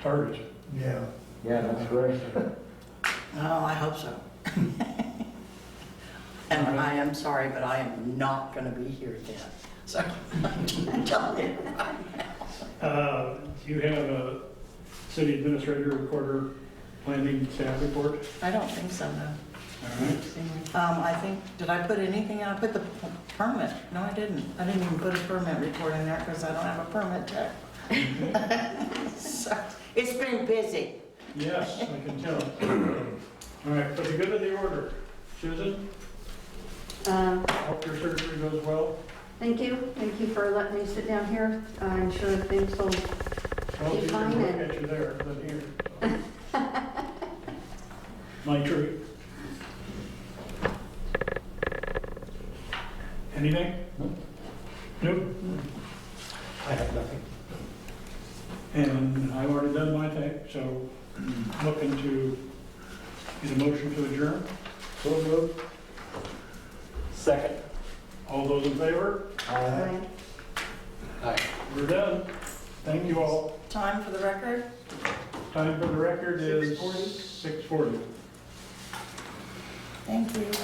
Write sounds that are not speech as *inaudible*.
targets. yeah. Yeah, that's great. Oh, I hope so. *laughs* And I am sorry, but I am not gonna be here then, so I'm telling you. Uh, Do you have a city administrator, recorder, planning staff report? I don't think so, no. All right. Um, I think, did I put anything, in? I put the p- permit, no, I didn't. I didn't even put a permit report in there because I don't have a permit check. Mm-hmm. *laughs* So, It's been busy. Yes, I can *clears throat* tell. All right, for the good of the order, Susan, Um, hope your surgery goes well. Thank you, thank you for letting me sit down here. I'm sure things will, Well, you Fine. can look at you there than here. My tree. Anything? Nope. I have nothing. And I've already done my thing, so looking to get a motion to adjourn. So moved. Second. All those in favor? Aye. I We're done. Thank you all. Time for the record? Time for the record is 6:40. 6:40. Thank you.